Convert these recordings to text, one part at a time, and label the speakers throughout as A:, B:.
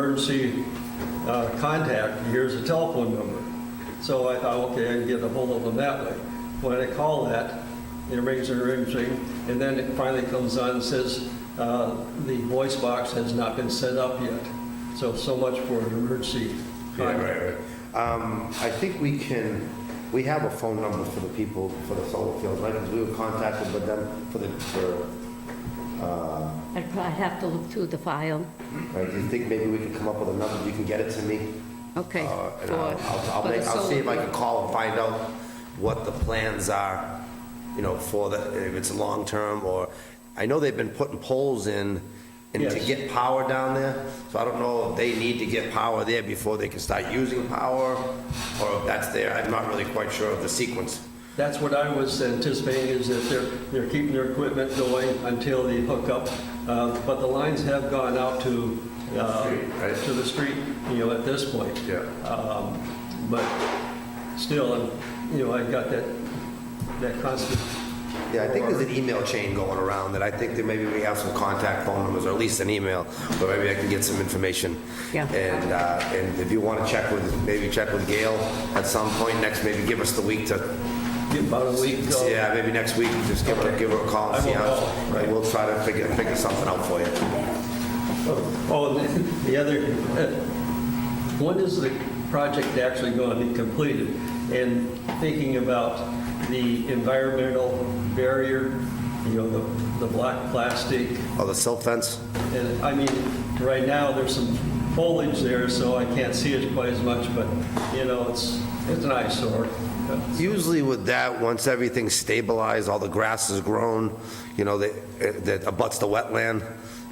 A: emergency uh, contact, here's a telephone number. So I thought, okay, I can get a hold of them that way. When I call that, it rings and rings, ring, and then it finally comes on and says, uh, the voice box has not been set up yet. So, so much for an emergency
B: Yeah,
A: contact.
B: right, right. Um, I think we can, we have a phone number for the people, for the solar fields, right? 'Cause we were contacted with them for the, for,
C: I'd probably have to look through the file.
B: right, do you think maybe we could come up with a number, you can get it to me?
C: Okay.
B: Uh, And
C: for-
B: I'll, I'll- I'll
C: for the
B: make- I'll see if I
C: solar-
B: can call and find out what the plans are, you know, for the, if it's long-term or, I know they've been putting poles in and to
A: Yes.
B: get power down there, so I don't know if they need to get power there before they can start using power or if that's there, I'm not really quite sure of the sequence.
A: That's what I was anticipating, is that they're, they're keeping their equipment going until they hook up. Uh, But the lines have gone out to, uh,
B: Street, right?
A: to the street, you know, at this point.
B: Yeah.
A: But still, I'm- you know, I got that, that constant.
B: Yeah, I think there's an email chain going around that I think that maybe we have some contact phone numbers or at least an email, or maybe I can get some information.
C: Yeah.
B: And, uh, and if you want to check with, maybe check with Gail at some point next, maybe give us the week to,
A: Give About a week. uh,
B: yeah, maybe next week, just give her, give her a call
A: I
B: and see
A: will
B: how.
A: call, right.
B: and We'll try to figure, figure something out for you.
A: Oh, and the other, uh, when is the project actually going to be completed? And thinking about the environmental barrier, you know, the, the black plastic,
B: Oh, the silt fence?
A: and I mean, right now, there's some foliage there, so I can't see it quite as much, but, you know, it's, it's an eyesore.
B: Usually with that, once everything's stabilized, all the grass is grown, you know, that eh, that abuts the wetland,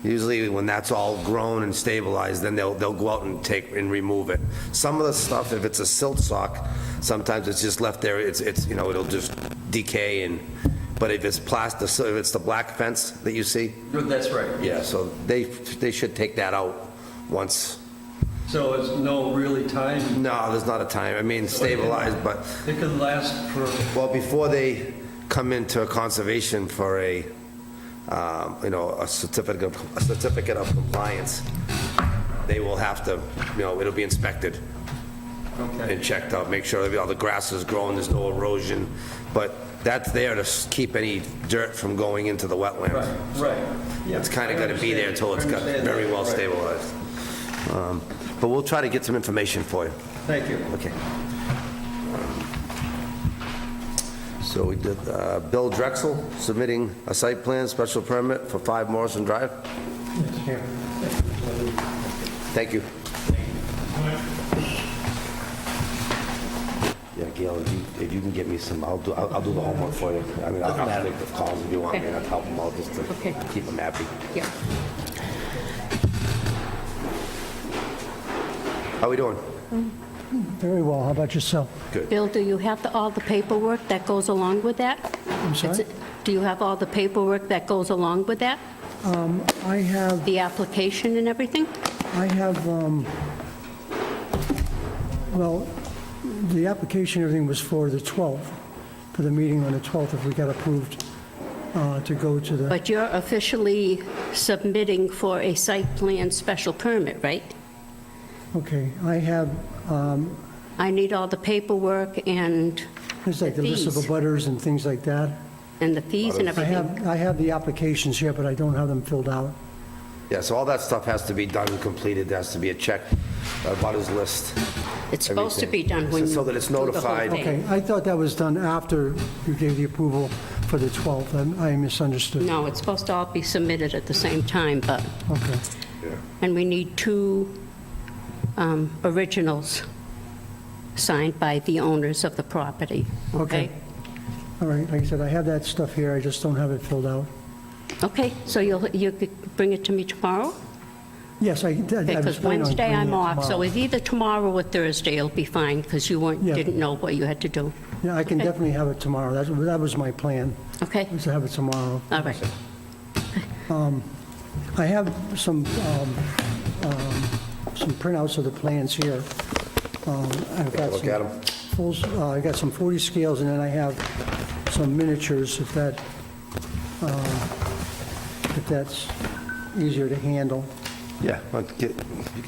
B: usually when that's all grown and stabilized, then they'll, they'll go out and take and remove it. Some of the stuff, if it's a silt sock, sometimes it's just left there, it's, it's, you know, it'll just decay and, but if it's plastic, so if it's the black fence that you see,
A: That's right.
B: yeah, so they, they should take that out once.
A: So it's no really time,
B: No, there's not a time, I mean, stabilized, but
A: it could last for,
B: Well, before they come into a conservation for a, um, you know, a certificate, of- a certificate of compliance, they will have to, you know, it'll be inspected
A: okay.
B: and checked out, make sure that all the grass is growing, there's no erosion, but that's there to s- keep any dirt from going into the
A: Right,
B: wetlands.
A: right. Yeah,
B: It's kind of going to be there until it's got
A: understand.
B: very well
A: Right.
B: stabilized. Um, But we'll try to get some information for you.
A: Thank you.
B: Okay. So we did, uh, Bill Drexel submitting a site plan, special permit for 5 Morrison Drive? Thank you. Yeah, Gail, if you- if you can get me some, I'll do, I'll I'll do the homework for you. I mean, I'll I'll make the calls if you want me, and I'll help them out just to
C: Okay.
B: keep them happy.
C: Yeah.
B: How we doing?
D: Very well, how about yourself?
C: Bill, do you have the- all the paperwork that goes along with that?
D: I'm sorry?
C: Do you have all the paperwork that goes along with that?
D: I have,
C: The application and everything?
D: I have, um, well, the application, everything was for the 12th, for the meeting on the 12th, if we got approved uh, to go to the,
C: But you're officially submitting for a site plan special permit, right?
D: okay, I have, um,
C: I need all the paperwork and,
D: there's like the list of
C: Fees.
D: abutters and things like that.
C: and the fees and
D: I
C: everything.
D: have, I have the applications here, but I don't have them filled out.
B: Yeah, so all that stuff has to be done and completed, there has to be a check, a butters list.
C: It's supposed to be
B: everything.
C: done when
B: So-
C: you...
B: so that it's
C: do the whole
B: notified.
C: thing.
D: Okay, I thought that was done after you gave the approval for the 12th, I I misunderstood.
C: No, it's supposed to all be submitted at the same time, but,
D: Okay,
C: and we need two um, originals signed by the owners of the property.
D: Okay. all right, like I said, I have that stuff here, I just don't have it filled out.
C: Okay, so you'll, you could bring it to me tomorrow?
D: Yes, I, I was planning on...
C: Because Wednesday
D: doing
C: I'm
D: that
C: off, so
D: tomorrow.
C: it's either tomorrow or Thursday will be fine, because you weren't,
D: Yeah.
C: didn't know what you had to do.
D: Yeah, I can
C: okay.
D: definitely have it tomorrow. That's- That was my plan,
C: Okay,
D: was to have it tomorrow.
C: all right.
D: I have some, um, um, some printouts of the plans here. Um, I've got
B: look
D: some
B: at 'em.
D: fulls- uh, I've got some 40 scales, and then I have some miniatures, if that, uh, if that's easier to handle.
B: Yeah, let's get-